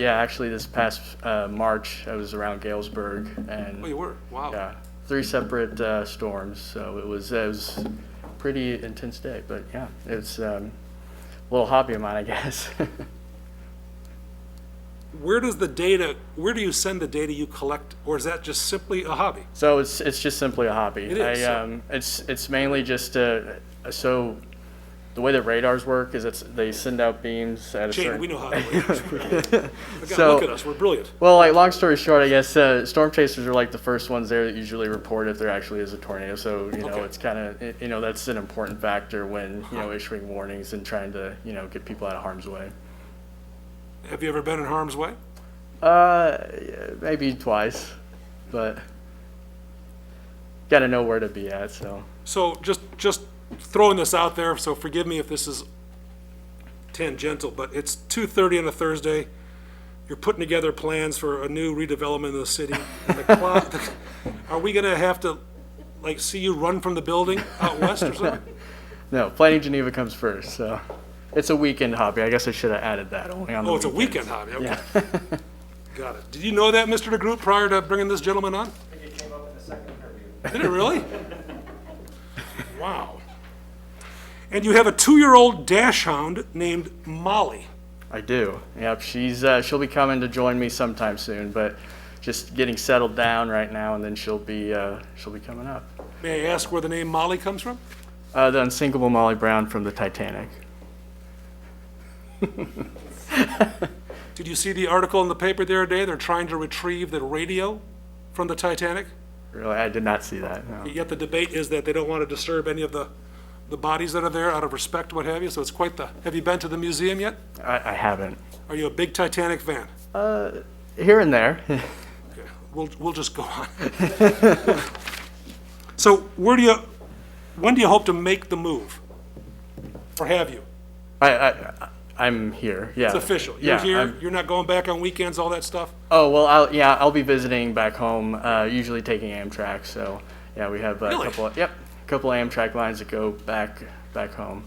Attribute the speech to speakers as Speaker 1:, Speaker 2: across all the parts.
Speaker 1: Yeah, actually, this past uh, March, I was around Galesburg, and
Speaker 2: Oh, you were? Wow.
Speaker 1: yeah, three separate uh, storms. So it was it was pretty intense day, but yeah, it's um, a little hobby of mine, I guess.
Speaker 2: Where does the data, where do you send the data you collect, or is that just simply a hobby?
Speaker 1: So it's it's just simply a hobby.
Speaker 2: It is,
Speaker 1: I,
Speaker 2: so-
Speaker 1: um, it's it's mainly just uh, so. The way that radars work is it's they send out beams at a
Speaker 2: Jane,
Speaker 1: certain.
Speaker 2: we know how that works. Look at-
Speaker 1: So-
Speaker 2: Look at us, we're brilliant.
Speaker 1: Well, like long story short, I guess uh, storm chasers are like the first ones there that usually report if there actually is a tornado. So you know,
Speaker 2: Okay.
Speaker 1: it's kind of you know that's an important factor when you know issuing warnings and trying to you know get people out of harm's way.
Speaker 2: Have you ever been in harm's way?
Speaker 1: Uh, yeah, maybe twice, but got to know where to be at. So
Speaker 2: So just, just throwing this out there, so forgive me if this is tangential, but it's 2:30 on a Thursday. You're putting together plans for a new redevelopment of the city. and the clock- Are we gonna have to, like, see you run from the building out west or something?
Speaker 1: no, planning Geneva comes first. So it's a weekend hobby. I guess I should have added that only on the
Speaker 2: Oh, it's a
Speaker 1: weekends.
Speaker 2: weekend hobby, okay. Got it. Did you know that, Mr. DeGroot, prior to bringing this gentleman on? Did it really? Wow. And you have a two-year-old dash hound named Molly.
Speaker 1: I do. Yep, she's uh, she'll be coming to join me sometime soon, but just getting settled down right now, and then she'll be uh, she'll be coming up.
Speaker 2: May I ask where the name Molly comes from?
Speaker 1: Uh, the unsinkable Molly Brown from the Titanic.
Speaker 2: Did you see the article in the paper the other day? They're trying to retrieve the radio from the Titanic.
Speaker 1: Really, I did not see that. No.
Speaker 2: Yet the debate is that they don't want to disturb any of the, the bodies that are there out of respect, what have you. So it's quite the, have you been to the museum yet?
Speaker 1: I, I haven't.
Speaker 2: Are you a big Titanic fan?
Speaker 1: Here and there.
Speaker 2: Okay, We'll, we'll just go on. So where do you, when do you hope to make the move? Or have you?
Speaker 1: I, I I'm here. Yeah.
Speaker 2: It's official. You're
Speaker 1: yeah.
Speaker 2: here,
Speaker 1: I'm-
Speaker 2: you're not going back on weekends, all that stuff?
Speaker 1: oh well. I'll, yeah, I'll be visiting back home. Uh, usually taking Amtrak. So yeah, we have a
Speaker 2: Really?
Speaker 1: couple. Of, yep, a couple Amtrak lines that go back back home.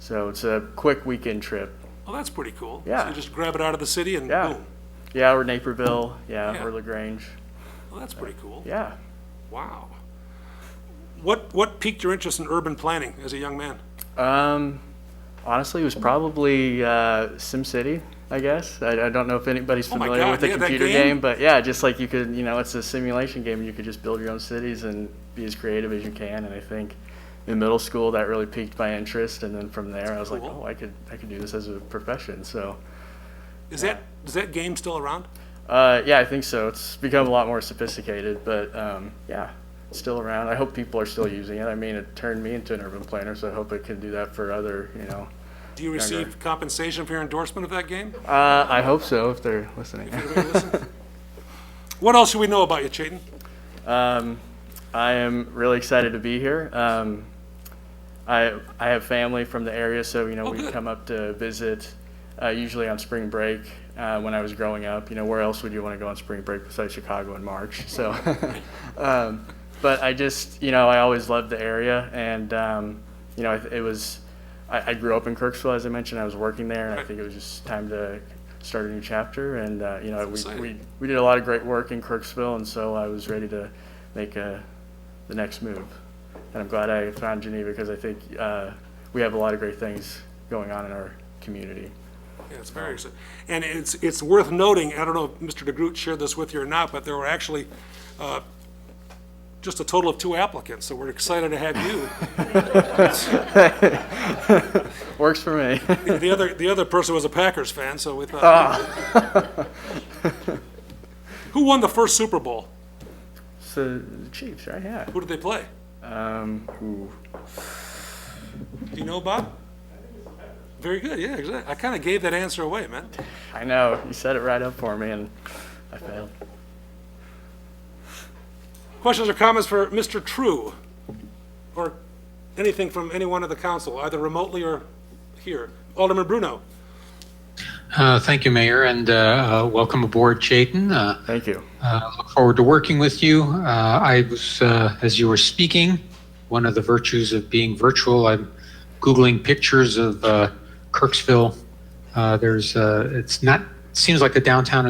Speaker 1: So it's a quick weekend trip.
Speaker 2: Well, that's pretty cool. So
Speaker 1: Yeah.
Speaker 2: you just grab it out of the city and
Speaker 1: Yeah.
Speaker 2: boom.
Speaker 1: Yeah, or Naperville. Yeah,
Speaker 2: Yeah.
Speaker 1: or Lagrange.
Speaker 2: Well, that's pretty cool.
Speaker 1: Yeah.
Speaker 2: Wow. What, what piqued your interest in urban planning as a young man?
Speaker 1: Um, honestly, it was probably uh, SimCity. I guess I, I don't know if anybody's
Speaker 2: Oh my
Speaker 1: familiar
Speaker 2: God,
Speaker 1: with the
Speaker 2: yeah, that
Speaker 1: computer
Speaker 2: game?
Speaker 1: but yeah, just like you could, you know, it's a simulation game, and you could just build your own cities and be as creative as you can. And I think in middle school that really piqued my interest, and then from there I was like,
Speaker 2: Cool.
Speaker 1: oh, I could, I could do this as a profession. So
Speaker 2: Is that, is that game still around?
Speaker 1: uh, yeah, I think so. It's become a lot more sophisticated, but um, yeah, it's still around. I hope people are still using it. I mean, it turned me into an urban planner, so I hope it can do that for other, you know.
Speaker 2: Do you receive compensation for your endorsement of that game?
Speaker 1: Uh, I hope so if they're listening.
Speaker 2: Anybody listen? What else should we know about you, Chayton?
Speaker 1: Um, I am really excited to be here. Um, I I have family from the area, so you know we
Speaker 2: good.
Speaker 1: come up to visit uh, usually on spring break. Uh, when I was growing up, you know, where else would you want to go on spring break besides Chicago in March? So, um, but I just you know I always loved the area, and um, you know it, it was I, I grew up in Kirksville as I mentioned. I was working there, and I think it was just time to start a new chapter. And uh, you know we,
Speaker 2: exciting.
Speaker 1: we we did a lot of great work in Kirksville, and so I was ready to make a, the next move. And I'm glad I found Geneva because I think uh, we have a lot of great things going on in our community.
Speaker 2: Yeah, it's very exciting. And it's, it's worth noting, I don't know if Mr. DeGroot shared this with you or not, but there were actually uh, just a total of two applicants, so we're excited to have you.
Speaker 1: Works for me.
Speaker 2: The other, the other person was a Packers fan, so we thought. Who won the first Super Bowl?
Speaker 1: so the Chiefs, right? Yeah.
Speaker 2: Who did they play?
Speaker 1: Um, ooh.
Speaker 2: Do you know, Bob? Very good, yeah, exactly. I kind of gave that answer away, man.
Speaker 1: I know you set it right up for me, and I failed.
Speaker 2: Questions or comments for Mr. True? Or anything from anyone of the council, either remotely or here? Alderman Bruno?
Speaker 3: Uh, Thank you, Mayor, and uh, uh, welcome aboard, Chayton. Uh,
Speaker 1: Thank you.
Speaker 3: uh, Look forward to working with you. Uh, I was, uh, as you were speaking, one of the virtues of being virtual, I'm Googling pictures of uh, Kirksville. Uh, There's, uh, it's not seems like the downtown is.